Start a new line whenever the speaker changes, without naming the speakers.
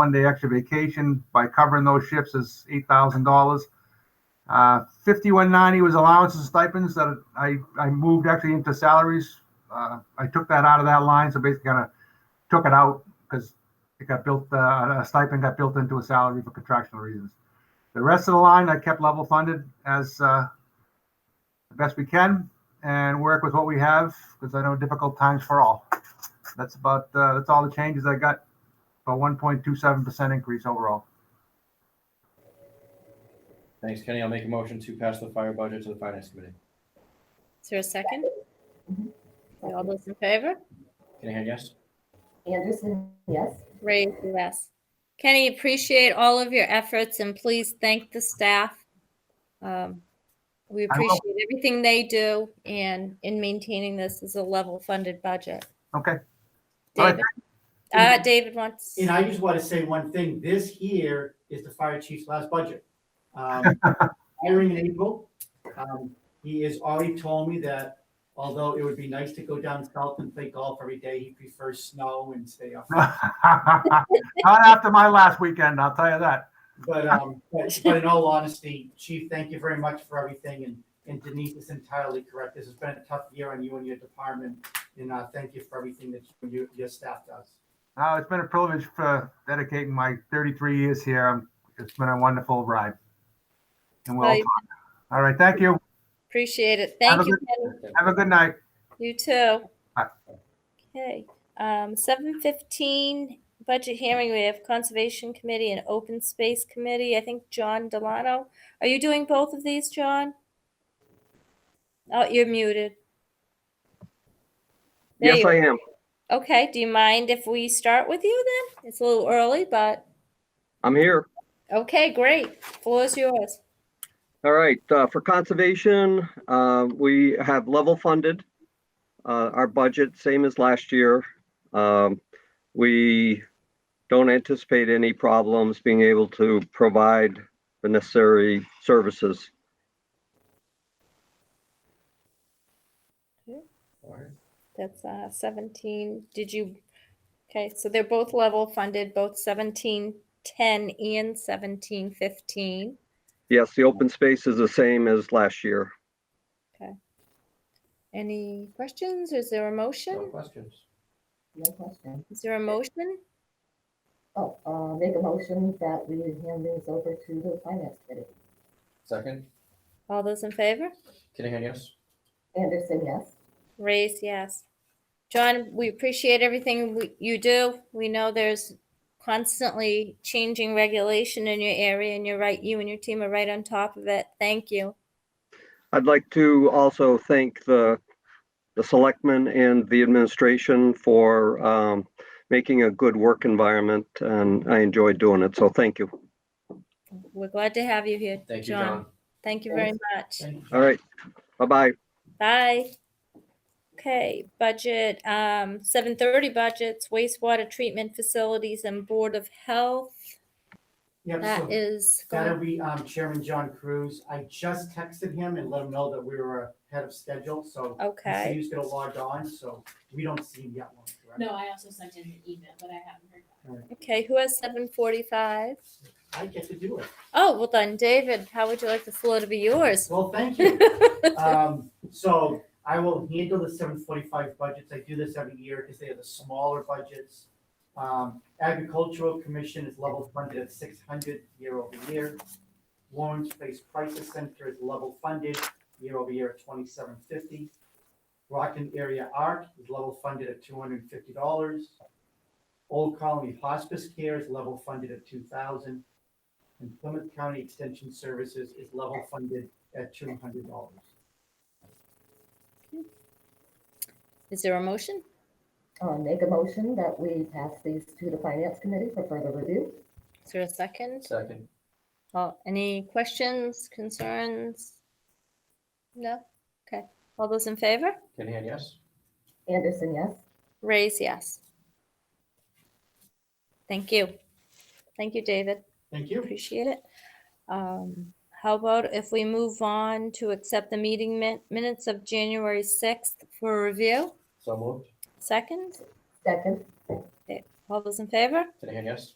one day extra vacation by covering those shifts is eight thousand dollars. Uh, fifty-one ninety was allowances and stipends that I, I moved actually into salaries. Uh, I took that out of that line, so basically kind of took it out because it got built, uh, a stipend got built into a salary for contractual reasons. The rest of the line I kept level funded as, uh, the best we can and work with what we have because I know difficult times for all. That's about, uh, that's all the changes I got. A one point two seven percent increase overall.
Thanks, Kenny. I'll make a motion to pass the fire budget to the finance committee.
Is there a second?
Mm-hmm.
All those in favor?
Kenny, Head, yes?
Anderson, yes.
Ray, yes. Kenny, appreciate all of your efforts and please thank the staff. Um, We
I will.
appreciate everything they do and in maintaining this as a level funded budget.
Okay, All right.
David, uh, David wants,
And I just want to say one thing, this here is the fire chief's last budget. Um, Hiring in April, um, he has already told me that although it would be nice to go down south and play golf every day, he prefers snow and stay up.
not after my last weekend, I'll tell you that.
But, um, but but in all honesty, chief, thank you very much for everything, and, and Denise is entirely correct, this has been a tough year on you and your department, and, uh, thank you for everything that you- you, your staff does.
Uh, it's been a privilege for dedicating my 33 years here. Um, It's been a wonderful ride. And we'll,
Well, you-
all right, thank you.
appreciate it.
Have
Thank
a
you,
good-
Kenny.
Have a good night.
You too.
Bye.
Okay, um, seven fifteen, budget hearing, we have Conservation Committee and Open Space Committee, I think John Delano. Are you doing both of these, John? Oh, you're muted. There
Yes,
you-
I am.
Okay, do you mind if we start with you then? It's a little early, but,
I'm here.
okay, great, floor is yours.
All right, uh, for conservation, uh, we have level funded, uh, our budget, same as last year. Um, we don't anticipate any problems being able to provide the necessary services.
All right.
That's uh, 17, did you, okay, so they're both level funded, both 1710 and 1715.
Yes, the open space is the same as last year.
Any questions? Is there a
No
motion?
questions.
No question.
Is there a motion?
Oh, uh, make a motion that we hand these over to the finance committee.
Second,
All those in favor?
Kenny, Head, yes?
Anderson, yes.
Raise yes. John, we appreciate everything we- you do. We know there's constantly changing regulation in your area, and you're right, you and your team are right on top of it. Thank you.
I'd like to also thank the, the selectmen and the administration for, um, making a good work environment and I enjoy doing it, so thank you.
We're glad to have you here,
Thank you,
John.
John.
Thank you very much.
Thank you.
All right, bye-bye.
Bye. Okay, budget, um, seven thirty budgets, wastewater treatment facilities and Board of Health.
Yep, so-
That is,
That'll
going-
be um, Chairman John Cruz. I just texted him and let him know that we were ahead of schedule, so.
okay.
He's gonna log on, so we don't see him yet. Lauren, correct?
No, I also sent in an email, but I haven't heard back.
Okay, who has seven forty-five?
I get to do it.
Oh, well then, David, how would you like the floor to be yours?
Well, thank you. Um, so I will handle the seven forty-five budgets. I do this every year because they are the smaller budgets. Um, agricultural commission is level funded at six hundred year over year. Lawrence Place Crisis Center is level funded year over year at twenty-seven fifty. Rockland Area Art is level funded at two hundred and fifty dollars. Old Colony Hospice Care is level funded at two thousand. And Plymouth County Extension Services is level funded at two hundred dollars.
Is there a motion?
Uh, make a motion that we pass these to the finance committee for further review.
Is there a second?
Second,
Well, any questions, concerns? No? Okay, all those in favor?
Kenny, Head, yes?
Anderson, yes.
Raise yes. Thank you. Thank you, David.
Thank you.
Appreciate it. Um, how about if we move on to accept the meeting min- minutes of January sixth for review?
So moved.
Second,
Second,
all those in favor?
Kenny, Head, yes?